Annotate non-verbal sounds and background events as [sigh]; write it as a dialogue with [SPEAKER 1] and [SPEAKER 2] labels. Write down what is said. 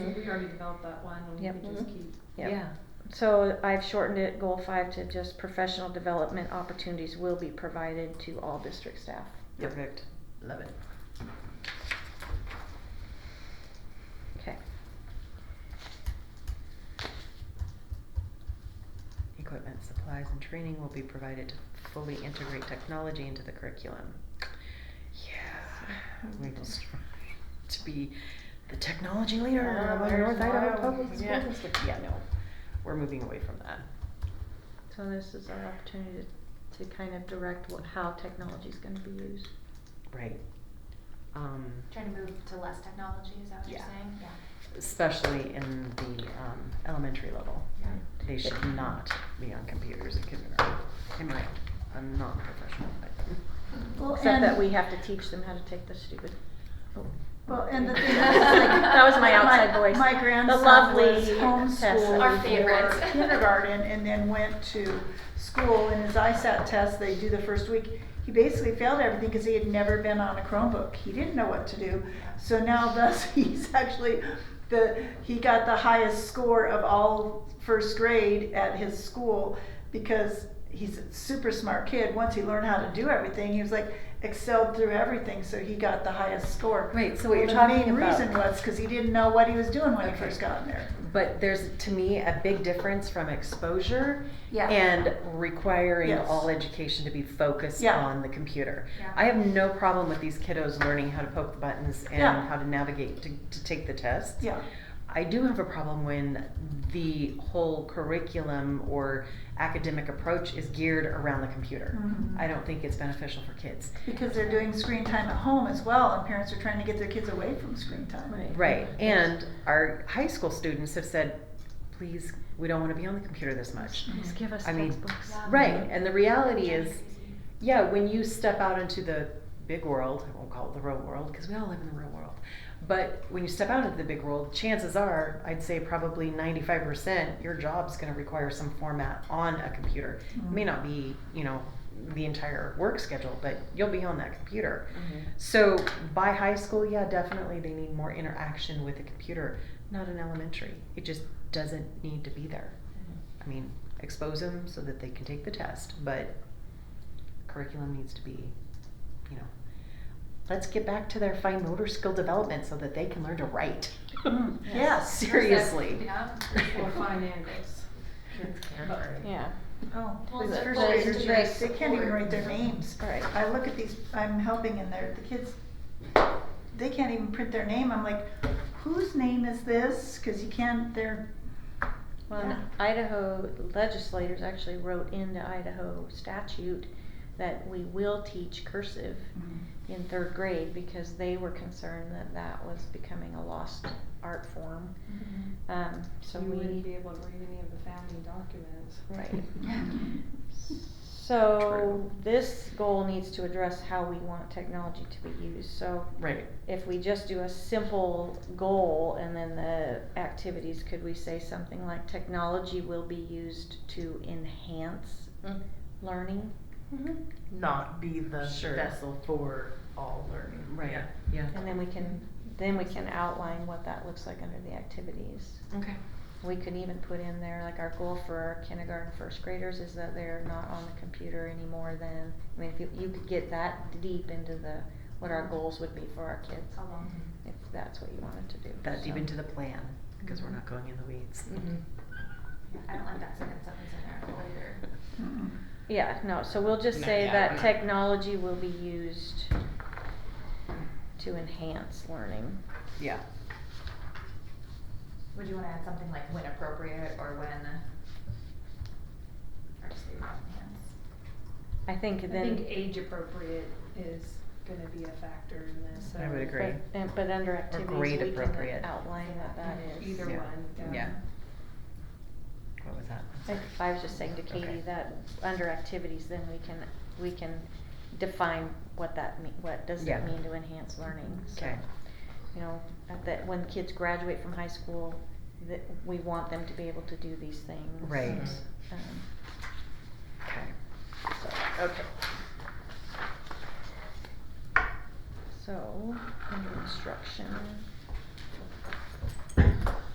[SPEAKER 1] we already developed that one, and we
[SPEAKER 2] Yep. Mm-hmm.
[SPEAKER 1] could just
[SPEAKER 3] Mhm.
[SPEAKER 1] keep.
[SPEAKER 3] Yep.
[SPEAKER 2] Yeah, so I've shortened it, goal five, to just professional development opportunities will be provided to all district staff.
[SPEAKER 3] Perfect. Love it.
[SPEAKER 2] Okay.
[SPEAKER 3] Equipment, supplies, and training will be provided to fully integrate technology into the [sighs] curriculum. Yeah, we will strive to be the technology leader
[SPEAKER 1] Ah,
[SPEAKER 3] of our
[SPEAKER 1] there's
[SPEAKER 3] North Idaho
[SPEAKER 1] Iowa.
[SPEAKER 3] Public School
[SPEAKER 1] Yeah.
[SPEAKER 3] District. Yeah, no, we're moving away from that.
[SPEAKER 2] So this is our opportunity to, to kind of direct what, how technology's gonna be used.
[SPEAKER 3] Right. Um,
[SPEAKER 4] Trying to move to less technology, is that what you're
[SPEAKER 3] Yeah.
[SPEAKER 4] saying? Yeah.
[SPEAKER 3] especially in the um, elementary level.
[SPEAKER 4] Yeah.
[SPEAKER 3] They should not be on computers in kindergarten. In my, I'm not professional, but.
[SPEAKER 1] Well,
[SPEAKER 2] Except that
[SPEAKER 1] and-
[SPEAKER 2] we have to teach them how to take the stupid. oh.
[SPEAKER 1] Well,
[SPEAKER 2] [laughs]
[SPEAKER 1] and the thing is, like,
[SPEAKER 2] That was my outside voice.
[SPEAKER 1] My grandson
[SPEAKER 2] The lovely
[SPEAKER 1] was
[SPEAKER 2] Tessa.
[SPEAKER 1] homeschooled
[SPEAKER 4] Our favorites.
[SPEAKER 1] for kindergarten, and then went to school. And his ISAT test they do the first week, he basically failed everything because he had never been on a Chromebook. He didn't know what to do. So now, [laughs] thus, he's actually the he got the highest score of all first grade at his school because he's a super smart kid. Once he learned how to do everything, he was like excelled through everything. So he got the highest score.
[SPEAKER 3] Wait, so what
[SPEAKER 1] Well,
[SPEAKER 3] you're talking
[SPEAKER 1] The main
[SPEAKER 3] about-
[SPEAKER 1] reason was because he didn't know what he was doing when he
[SPEAKER 3] Okay.
[SPEAKER 1] first got in there.
[SPEAKER 3] But there's, to me, a big difference from exposure
[SPEAKER 4] Yeah.
[SPEAKER 3] and requiring
[SPEAKER 1] Yes.
[SPEAKER 3] all education to be focused
[SPEAKER 1] Yeah.
[SPEAKER 3] on the computer.
[SPEAKER 4] Yeah.
[SPEAKER 3] I have no problem with these kiddos learning how to poke the buttons
[SPEAKER 1] Yeah.
[SPEAKER 3] and how to navigate to, to take the test.
[SPEAKER 1] Yeah.
[SPEAKER 3] I do have a problem when the whole curriculum or academic approach is geared around the computer.
[SPEAKER 1] Mhm.
[SPEAKER 3] I don't think it's beneficial for kids.
[SPEAKER 1] Because they're doing screen time at home as well, and parents are trying to get their kids away from screen time.
[SPEAKER 2] Right.
[SPEAKER 3] Right. And our high school students have said, please, we don't want to be on the computer this much.
[SPEAKER 2] Just give us
[SPEAKER 3] I mean,
[SPEAKER 2] textbooks.
[SPEAKER 4] Yeah.
[SPEAKER 3] Right. And the reality
[SPEAKER 4] Trying to
[SPEAKER 3] is,
[SPEAKER 4] crazy.
[SPEAKER 3] yeah, when you step out into the big world, I won't call it the real world because we all live in the real world. But when you step out into the big world, chances are, I'd say probably 95%, your job's going to require some format on a computer. It may
[SPEAKER 1] Mhm.
[SPEAKER 3] not be, you know, the entire work schedule, but you'll be on that computer. So by high school, yeah, definitely they need more interaction with the computer, not in elementary. It just doesn't need to be there. I mean, expose them so that they can take the test, but curriculum needs to be, you know, let's get back to their fine motor skill development so that they can learn to write. [laughs]
[SPEAKER 1] Mm,
[SPEAKER 2] Yes.
[SPEAKER 1] Yes.
[SPEAKER 3] Seriously. [laughs]
[SPEAKER 4] Yeah.
[SPEAKER 1] Or fine angles.
[SPEAKER 2] Yeah.
[SPEAKER 1] Oh,
[SPEAKER 4] Well,
[SPEAKER 1] these
[SPEAKER 4] the
[SPEAKER 1] first
[SPEAKER 4] full
[SPEAKER 1] graders,
[SPEAKER 4] student
[SPEAKER 1] yes, they can't even
[SPEAKER 4] support.
[SPEAKER 1] write their names.
[SPEAKER 2] Right.
[SPEAKER 1] I look at these, I'm helping and they're, the kids, they can't even print their name. I'm like, whose name is this? Cause you can't, they're,
[SPEAKER 2] Well, and
[SPEAKER 1] Yeah.
[SPEAKER 2] Idaho legislators actually wrote into Idaho statute that we will teach cursive
[SPEAKER 1] Mm-hmm.
[SPEAKER 2] in third grade because they were concerned that that was becoming a lost art form. Um, so
[SPEAKER 5] you
[SPEAKER 2] we.
[SPEAKER 5] wouldn't be able to read any of the family documents. [laughs]
[SPEAKER 2] Right.
[SPEAKER 1] Mm-hmm.
[SPEAKER 4] Mm-hmm.
[SPEAKER 1] Mhm.
[SPEAKER 2] So
[SPEAKER 3] True.
[SPEAKER 2] this goal needs to address how we want technology to be used, so
[SPEAKER 3] Right.
[SPEAKER 2] if we just do a simple goal and then the activities, could we say something like technology will be used to enhance
[SPEAKER 6] Mm.
[SPEAKER 2] learning?
[SPEAKER 6] Not be the
[SPEAKER 3] Sure.
[SPEAKER 6] vessel for all learning.
[SPEAKER 3] Right.
[SPEAKER 6] Yeah.
[SPEAKER 3] Yeah.
[SPEAKER 2] And then we can, then we can outline what that looks like under the activities.
[SPEAKER 3] Okay.
[SPEAKER 2] We could even put in there, like our goal for our kindergarten first graders is that they're not on the computer any more than, I mean, if you, you could get that deep into the, what our goals would be for our kids,
[SPEAKER 4] How long?
[SPEAKER 2] if that's what you wanted to do.
[SPEAKER 3] That deep
[SPEAKER 2] so.
[SPEAKER 3] into the plan because we're not going in the weeds.
[SPEAKER 6] Mm-hmm.
[SPEAKER 2] Mhm.
[SPEAKER 4] I don't like that sentence that was in there either.
[SPEAKER 1] Mm-mm.
[SPEAKER 2] Yeah, no, so we'll just
[SPEAKER 6] No,
[SPEAKER 2] say
[SPEAKER 6] yeah,
[SPEAKER 2] that
[SPEAKER 6] we're not-
[SPEAKER 2] technology will be used to enhance learning.
[SPEAKER 3] Yeah.
[SPEAKER 4] Would you wanna add something like when appropriate or when? Or just leave it on hands?
[SPEAKER 2] I think
[SPEAKER 5] I
[SPEAKER 2] then.
[SPEAKER 5] think age appropriate is gonna be a factor in this.
[SPEAKER 3] I
[SPEAKER 5] so
[SPEAKER 3] would agree.
[SPEAKER 2] But, and- but under activities, we
[SPEAKER 3] grade
[SPEAKER 2] can
[SPEAKER 3] appropriate.
[SPEAKER 2] outline what that is.
[SPEAKER 5] Either
[SPEAKER 3] Yeah.
[SPEAKER 5] one, yeah.
[SPEAKER 3] Yeah. What was that?
[SPEAKER 2] I I was just saying to
[SPEAKER 3] Okay.
[SPEAKER 2] Katie that under activities, then we can, we can define what that mean, what does
[SPEAKER 3] Yeah.
[SPEAKER 2] it mean to enhance learning, so.
[SPEAKER 3] Okay.
[SPEAKER 2] You know, at that, when kids graduate from high school, that, we want them to be able to do these things.
[SPEAKER 3] Right.
[SPEAKER 2] Um,
[SPEAKER 3] Okay.
[SPEAKER 2] So, okay. So, under instruction.